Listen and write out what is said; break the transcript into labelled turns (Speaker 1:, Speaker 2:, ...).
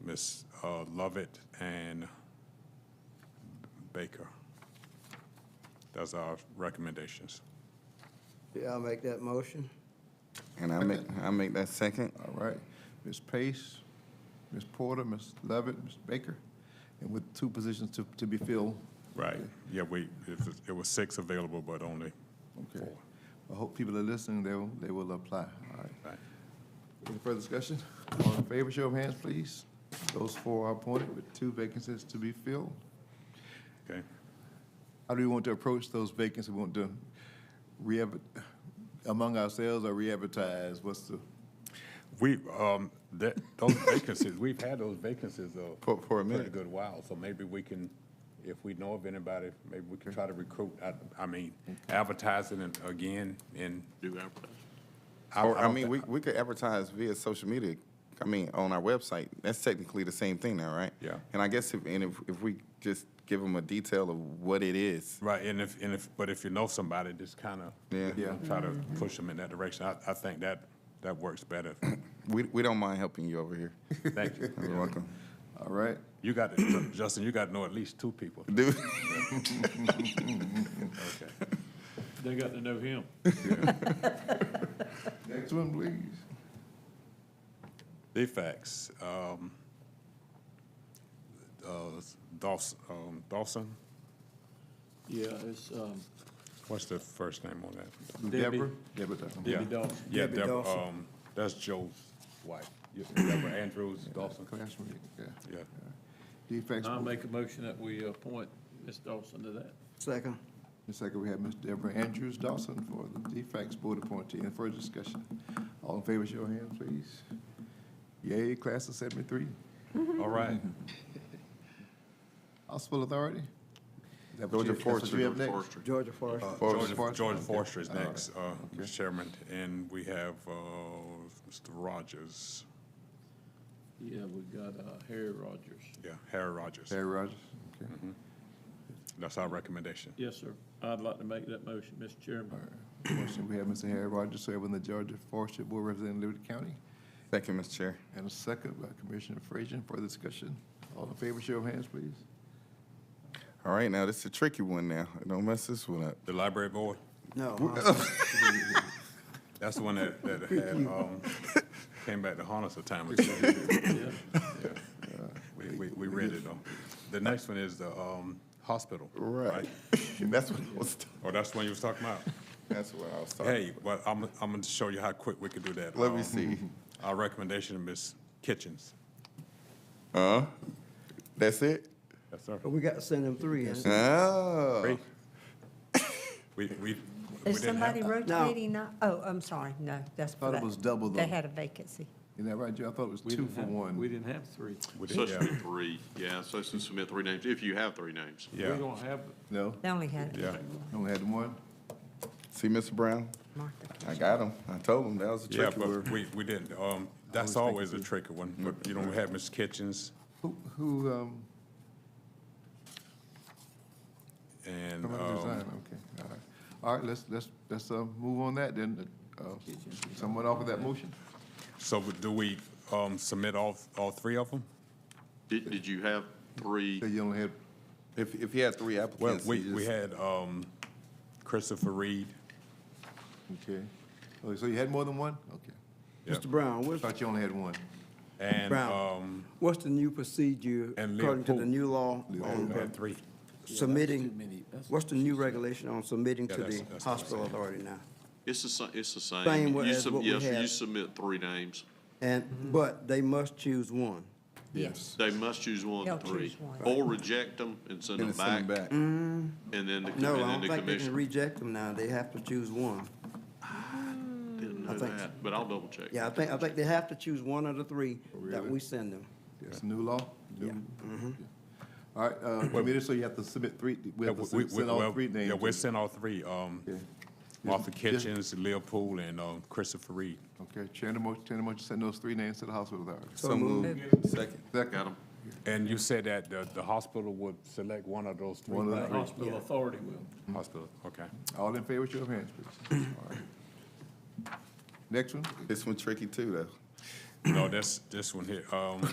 Speaker 1: Davis, uh, Lovett, and Baker. That's our recommendations.
Speaker 2: Yeah, I'll make that motion.
Speaker 3: And I make, I make that second.
Speaker 4: All right. Ms. Pace, Ms. Porter, Ms. Levitt, Ms. Baker, and with two positions to, to be filled.
Speaker 1: Right, yeah, we, it was- it was six available, but only
Speaker 4: Okay. I hope people are listening, they will, they will apply. All right.
Speaker 1: Right.
Speaker 4: Any further discussion? All in favor, show of hands, please. Those four are appointed with two vacancies to be filled.
Speaker 1: Okay,
Speaker 4: How do we want to approach those vacancies? We want to re among ourselves or re-advertise? What's the,
Speaker 1: we, um, that, those vacancies, we've had those vacancies though.
Speaker 3: For- for a minute.
Speaker 1: Pretty good while, so maybe we can, if we know of anybody, maybe we can try to recruit, I, I mean, advertising it again and. Do advertising.
Speaker 3: Or, I mean, we, we could advertise via social media, I mean, on our website. That's technically the same thing now, right?
Speaker 1: Yeah.
Speaker 3: And I guess if, and if, if we just give them a detail of what it is,
Speaker 1: Right, and if, and if, but if you know somebody, just kind of.
Speaker 3: Yeah.
Speaker 4: Yeah.
Speaker 1: Try to push them in that direction. I, I think that, that works better.
Speaker 3: we, we don't mind helping you over here.
Speaker 1: Thank you.
Speaker 3: You're welcome.
Speaker 4: all right?
Speaker 1: You got, to- Justin, you got to know at least two people.
Speaker 3: Dude,
Speaker 1: Okay.
Speaker 5: They got to know him.
Speaker 4: Next one, please.
Speaker 1: Defects, um, uh, Dawson, um, Dawson,
Speaker 5: Yeah, it's, um,
Speaker 1: what's the first name on that?
Speaker 5: Debbie.
Speaker 4: Deborah? Deborah Thompson.
Speaker 1: Yeah.
Speaker 5: Dawson.
Speaker 1: Yeah,
Speaker 2: Debbie
Speaker 1: Deborah,
Speaker 2: Dawson.
Speaker 1: um, that's Joe's wife. Yeah, Deborah Andrews Dawson,
Speaker 4: Classmate, yeah.
Speaker 1: yeah.
Speaker 4: Defects.
Speaker 5: I'll make a motion that we appoint Ms. Dawson to that.
Speaker 2: Second.
Speaker 4: The second, we have Ms. Deborah Andrews Dawson for the defects board appointee. Any further discussion? All in favor, show your hand, please. Yay, class of seventy-three.
Speaker 1: All
Speaker 3: Mm-hmm.
Speaker 1: right.
Speaker 4: Hospital Authority? Is that
Speaker 3: Georgia
Speaker 4: what you- that's what
Speaker 3: Forestry.
Speaker 4: you have next?
Speaker 2: Georgia
Speaker 1: Uh,
Speaker 2: Forest.
Speaker 4: Forrester.
Speaker 1: George, George
Speaker 4: Okay.
Speaker 1: Forster is
Speaker 4: All right.
Speaker 1: next, uh, Mr.
Speaker 4: Okay.
Speaker 1: Chairman, and we have, uh, Mr. Rogers,
Speaker 5: Yeah, we got, uh, Harry Rogers.
Speaker 1: yeah, Harry Rogers.
Speaker 4: Harry Rogers, okay.
Speaker 1: That's our recommendation.
Speaker 5: Yes, sir. I'd like to make that motion, Mr.
Speaker 4: All
Speaker 5: Chairman.
Speaker 4: right. Motion, we have Mr. Harry Rogers serving the Georgia Forestry Board representing Liberty County.
Speaker 3: thank you, Mr. Chair.
Speaker 4: And a second by Commissioner Frazier for discussion. All in favor, show your hands, please.
Speaker 3: All right, now this is a tricky one now. Don't mess this one up.
Speaker 1: The library board,
Speaker 2: No, huh?
Speaker 1: that's the one that, that had, um, came back to haunt us a time or two.
Speaker 5: Yeah.
Speaker 1: We, we, we read it though. The next one is the, um, hospital.
Speaker 3: That's what I was,
Speaker 1: Oh, that's the one you was talking about?
Speaker 3: that's what I was talking
Speaker 1: Hey, well, I'm, I'm gonna show you how quick we can do that.
Speaker 3: Let me
Speaker 1: Um,
Speaker 3: see.
Speaker 1: Our recommendation, Ms. Kitchens.
Speaker 3: about. Huh? That's it?
Speaker 1: Yes, sir.
Speaker 2: But we got to send them three in.
Speaker 3: Oh.
Speaker 1: We, we. we
Speaker 6: Is
Speaker 1: didn't have-
Speaker 6: somebody rotating now? Oh, I'm sorry, no, that's for
Speaker 4: Thought it
Speaker 6: that.
Speaker 4: was double
Speaker 6: They
Speaker 4: though.
Speaker 6: had a vacancy.
Speaker 4: Isn't that right, Joe? I thought it was
Speaker 5: We
Speaker 4: two
Speaker 5: didn't
Speaker 4: for
Speaker 5: have-
Speaker 4: one.
Speaker 5: We didn't have three.
Speaker 1: we
Speaker 7: So
Speaker 1: didn't-
Speaker 7: it should be three, yeah, so it's submit three names, if you have three names.
Speaker 5: We
Speaker 1: Yeah,
Speaker 5: don't have,
Speaker 4: No,
Speaker 6: They only had
Speaker 1: yeah,
Speaker 4: only had one?
Speaker 3: See, Mr. Brown?
Speaker 6: Martha.
Speaker 3: I got him. I told him that was a
Speaker 1: yeah,
Speaker 3: tricky
Speaker 1: but
Speaker 3: word.
Speaker 1: we, we didn't, um, that's always a tricky one,
Speaker 4: Mm-hmm.
Speaker 1: but, you know, we had Ms. Kitchens
Speaker 4: Who, who, um,
Speaker 1: and,
Speaker 4: From other
Speaker 1: um,
Speaker 4: design, okay, all right. All right, let's, let's, let's, uh, move on that then. Uh, Someone offer that motion?
Speaker 1: so do we, um, submit all, all three of them?
Speaker 7: Did, did you have three?
Speaker 4: Say you only had,
Speaker 3: If, if you had three
Speaker 1: Well,
Speaker 3: applicants,
Speaker 1: we,
Speaker 3: you
Speaker 1: we
Speaker 3: just-
Speaker 1: had, um, Christopher Reed.
Speaker 4: okay. Okay, so you had more than one? Okay.
Speaker 1: Yeah. Uh,
Speaker 2: Mr. Brown, what's,
Speaker 4: Thought you only had one.
Speaker 1: And,
Speaker 2: Brown.
Speaker 1: um,
Speaker 2: what's the new procedure
Speaker 1: And
Speaker 2: according to the
Speaker 1: Leopold.
Speaker 2: new law
Speaker 4: Oh,
Speaker 2: on
Speaker 1: and
Speaker 2: uh,
Speaker 1: three.
Speaker 2: submitting? What's the new regulation on submitting
Speaker 1: Yeah,
Speaker 2: to
Speaker 1: that's-
Speaker 2: the
Speaker 1: that's what I'm
Speaker 2: hospital authority now?
Speaker 7: It's the, sa- it's the same.
Speaker 2: Same
Speaker 7: You
Speaker 2: way as
Speaker 7: sub-
Speaker 2: what we
Speaker 7: yes, You
Speaker 2: had.
Speaker 7: submit three names.
Speaker 2: And, but they must choose one.
Speaker 6: Yes.
Speaker 7: They must choose one
Speaker 6: They'll
Speaker 7: of the three.
Speaker 6: choose one.
Speaker 7: Or reject them and send
Speaker 3: Then
Speaker 7: them
Speaker 3: it's sent
Speaker 7: back,
Speaker 3: back.
Speaker 4: Mm.
Speaker 3: All
Speaker 7: and then the, com-
Speaker 2: No, I don't
Speaker 7: and then the
Speaker 2: think they can
Speaker 7: commission.
Speaker 2: reject them now. They have to choose one.
Speaker 7: Didn't know
Speaker 2: I think
Speaker 7: that, but I'll double check.
Speaker 2: Yeah, I think, I think they have to choose one of the three
Speaker 1: Oh,
Speaker 2: that we send them.
Speaker 4: That's new law? Yeah.
Speaker 7: Mm-hmm.
Speaker 4: All right, uh, committee, so you have to submit three, we
Speaker 1: Yeah,
Speaker 4: have to
Speaker 1: we- we-
Speaker 4: send send all
Speaker 1: well,
Speaker 4: three
Speaker 1: Yeah,
Speaker 4: names.
Speaker 1: we sent all three, um,
Speaker 4: Yeah.
Speaker 1: Martha
Speaker 4: Just- just-
Speaker 1: Kitchens, Leopold, and, um, Christopher Reed.
Speaker 4: Okay, chair the motion, chair the motion, send those three names to the hospital authority.
Speaker 3: So moved. Second.
Speaker 4: Second,
Speaker 7: Got them.
Speaker 1: And you said that the, the hospital would select one of those three?
Speaker 4: One of the
Speaker 5: The
Speaker 4: three.
Speaker 5: hospital authority will.
Speaker 1: Hospital, okay.
Speaker 4: all in favor, show of hands, please. All right. Next one?
Speaker 3: This one tricky too, though.
Speaker 1: No, that's, this one here, um,